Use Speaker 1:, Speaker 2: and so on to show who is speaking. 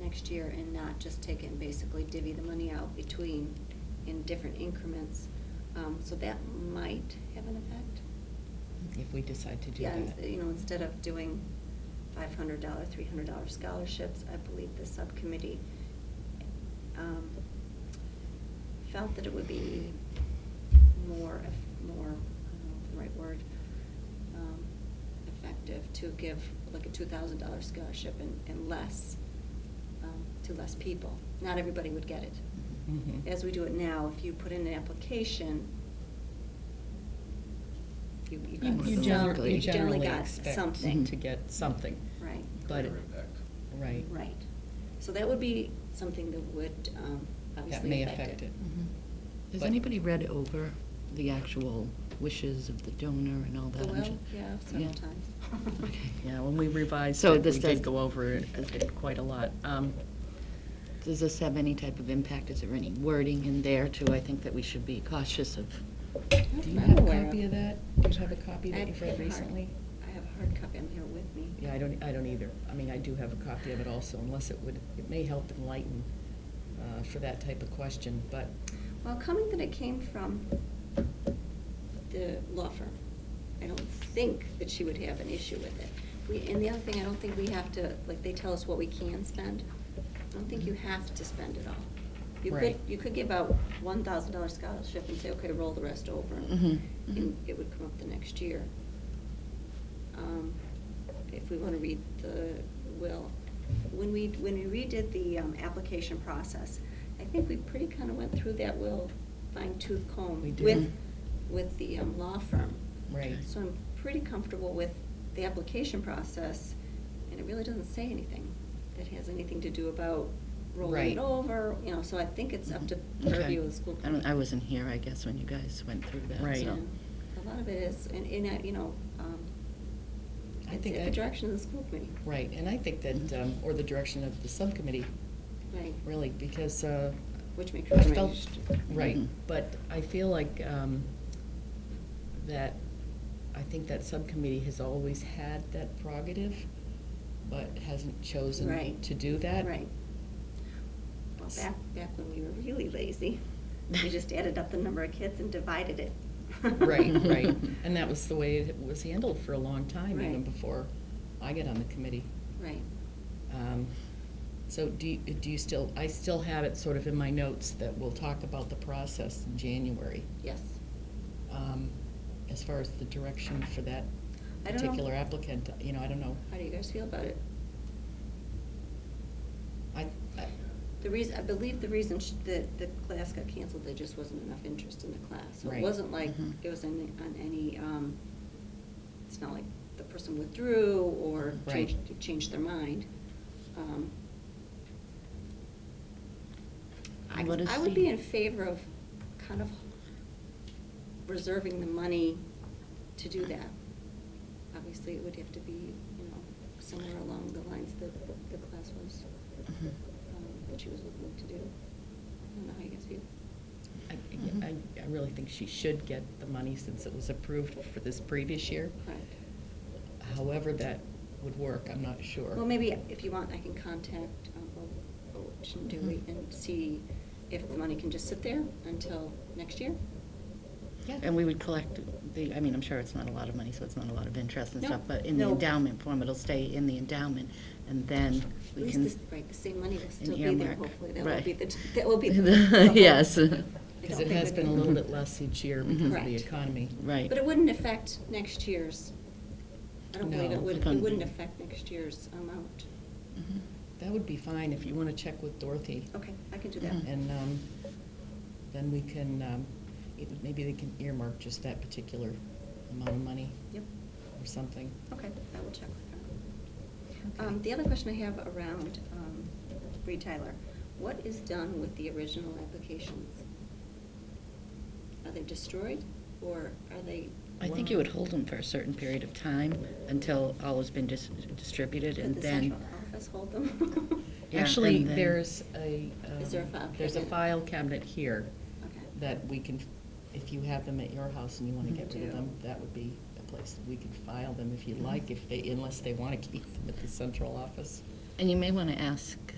Speaker 1: next year and not just take it and basically divvy the money out between, in different increments. Um, So that might have an effect.
Speaker 2: if we decide to do
Speaker 1: Yeah,
Speaker 2: that.
Speaker 1: you know, instead of doing five hundred dollar, three hundred dollar scholarships, I believe the subcommittee um, felt that it would be more, eff- more, I don't know if the right word, um, effective to give like a two thousand dollar scholarship and, and less, um, to less people. Not everybody would get it
Speaker 2: Mhm.
Speaker 1: as we do it now, if you put in an application, you, you
Speaker 2: You
Speaker 1: got some,
Speaker 2: you generally,
Speaker 1: you generally got
Speaker 2: expect Mm-hmm.
Speaker 1: something. Mm-hmm.
Speaker 2: to get something,
Speaker 1: Right,
Speaker 2: but,
Speaker 3: Career impact.
Speaker 2: right,
Speaker 1: right. So that would be something that would, um,
Speaker 2: that
Speaker 1: obviously
Speaker 2: may affect it.
Speaker 4: Mm-hmm. Has
Speaker 2: But-
Speaker 4: anybody read over the actual wishes of the donor and all that? I'm
Speaker 1: Well,
Speaker 4: ju-
Speaker 1: yeah, several
Speaker 4: Yeah.
Speaker 1: times.
Speaker 4: Okay.
Speaker 2: Yeah, when we revised
Speaker 4: So
Speaker 2: it, we
Speaker 4: this does-
Speaker 2: did go over it quite a lot. Um,
Speaker 4: Does this have any type of impact? Is there any wording in there too? I think that we should be cautious of.
Speaker 1: I'm
Speaker 2: Do you
Speaker 1: not
Speaker 2: have a
Speaker 1: aware
Speaker 2: copy of that? Do you have a copy
Speaker 1: I
Speaker 2: that you've
Speaker 1: have a
Speaker 2: read
Speaker 1: hard-
Speaker 2: recently?
Speaker 1: I have a hard copy, I'm here with me.
Speaker 2: Yeah, I don't, I don't either. I mean, I do have a copy of it also, unless it would, it may help enlighten uh, for that type of question, but,
Speaker 1: Well, coming that it came from the law firm, I don't think that she would have an issue with it. We, and the other thing, I don't think we have to, like, they tell us what we can spend. I don't think you have to spend it all. You could,
Speaker 2: Right.
Speaker 1: you could give out one thousand dollar scholarship and say, okay, roll the rest over,
Speaker 4: Mhm,
Speaker 1: and
Speaker 4: mhm.
Speaker 1: and it would come up the next year. Um, If we want to read the will. When we, when we redid the um, application process, I think we pretty kind of went through that will fine tooth comb.
Speaker 2: We did.
Speaker 1: With, with the um, law firm.
Speaker 2: right.
Speaker 1: So I'm pretty comfortable with the application process, and it really doesn't say anything that has anything to do about rolling
Speaker 2: Right.
Speaker 1: it over, you know, so I think it's up to
Speaker 4: Mm-hmm. Okay.
Speaker 1: purview of the school.
Speaker 4: I don't, I wasn't here, I guess, when you guys went through that,
Speaker 2: Right.
Speaker 4: so.
Speaker 1: Yeah. A lot of it is, and, and, I- you know, um,
Speaker 2: I
Speaker 1: it's
Speaker 2: think
Speaker 1: at the
Speaker 2: that-
Speaker 1: direction of the school committee.
Speaker 2: Right, and I think that, um, or the direction of the subcommittee,
Speaker 1: Right,
Speaker 2: really, because uh,
Speaker 1: which makes
Speaker 2: I
Speaker 1: it
Speaker 2: felt-
Speaker 1: arranged.
Speaker 2: Right,
Speaker 1: Mm-hmm.
Speaker 4: Mhm.
Speaker 2: but I feel like um, that, I think that subcommittee has always had that prerogative, but hasn't chosen
Speaker 1: Right.
Speaker 2: to do that.
Speaker 1: Right. Well, back, back when we were really lazy, we just added up the number of kids and divided it.
Speaker 2: Right, right. And that was the way it was handled for a long time, even
Speaker 1: Right.
Speaker 2: before I got on the committee.
Speaker 1: Right.
Speaker 2: Um, So do you, do you still, I still have it sort of in my notes that we'll talk about the process in January,
Speaker 1: Yes.
Speaker 2: um, as far as the direction for that
Speaker 1: I don't know.
Speaker 2: particular applicant, you know, I don't know.
Speaker 1: How do you guys feel about it?
Speaker 2: I, I-
Speaker 1: The reason, I believe the reason sh- that the class got canceled, there just wasn't enough interest in the class. So It
Speaker 2: Right. Mm-hmm.
Speaker 1: wasn't like
Speaker 4: Mhm.
Speaker 1: it was on, on any, um, it's not like the person withdrew or
Speaker 2: Right.
Speaker 1: changed, changed their mind. Um, I,
Speaker 4: Let us
Speaker 1: I would
Speaker 4: see.
Speaker 1: be in favor of kind of reserving the money to do that. Obviously, it would have to be, you know, somewhere along the lines that the class was
Speaker 2: Mm-hmm.
Speaker 4: Mhm.
Speaker 1: um, what she was looking to do. I don't know how you guys feel.
Speaker 2: I,
Speaker 1: Mm-hmm.
Speaker 4: Mhm.
Speaker 2: I I really think she should get the money since it was approved for this previous year.
Speaker 1: Correct.
Speaker 2: However that would work, I'm not sure.
Speaker 1: Well, maybe if you want, I can contact um, Bo- Boch and Dewey
Speaker 4: Mhm.
Speaker 1: and see if the money can just sit there until next year.
Speaker 2: Yeah.
Speaker 4: And we would collect the, I mean, I'm sure it's not a lot of money, so it's not a lot of interest and
Speaker 1: No,
Speaker 4: stuff, but in the
Speaker 1: no.
Speaker 4: endowment form, it'll stay in the endowment, and then
Speaker 1: At
Speaker 4: we
Speaker 1: least,
Speaker 4: can.
Speaker 1: this- right, the same money will
Speaker 4: an
Speaker 1: still be there,
Speaker 4: earmark.
Speaker 1: hopefully. That will
Speaker 4: Right.
Speaker 1: be the, that will be. the- the hope.
Speaker 4: Yes.
Speaker 1: I don't
Speaker 2: Because it
Speaker 1: think
Speaker 2: has
Speaker 1: we
Speaker 2: been a
Speaker 1: can-
Speaker 2: little bit less each year because of the
Speaker 1: Correct.
Speaker 2: economy.
Speaker 4: Right.
Speaker 1: But it wouldn't affect next year's, I don't believe
Speaker 2: No.
Speaker 1: it would, it
Speaker 4: Fund.
Speaker 1: wouldn't affect next year's amount.
Speaker 4: Mhm.
Speaker 2: That would be fine if you want to check with Dorothy.
Speaker 1: Okay, I can do that.
Speaker 4: Mhm.
Speaker 2: And um, then we can, um, it- maybe they can earmark just that particular amount of money
Speaker 1: Yep,
Speaker 2: or something.
Speaker 1: okay, I will check with her.
Speaker 2: Okay.
Speaker 1: Um, The other question I have around um, Reed Tyler, what is done with the original applications? Are they destroyed, or are they?
Speaker 4: I think you would hold them for a certain period of time until all has been dis- distributed,
Speaker 1: Did
Speaker 4: and
Speaker 1: the
Speaker 4: then.
Speaker 1: central office hold them?
Speaker 4: Yeah,
Speaker 2: Actually,
Speaker 4: and then-
Speaker 2: there's a.
Speaker 1: Is there a
Speaker 2: um,
Speaker 1: file
Speaker 2: There's a
Speaker 1: cabinet?
Speaker 2: file cabinet here
Speaker 1: Okay.
Speaker 2: that we can, if you have them at your house and you want to get rid of
Speaker 1: Do.
Speaker 2: them, that would be a place that we could file them if you like, if they, unless they want to keep them at the central office.
Speaker 4: And you may want to ask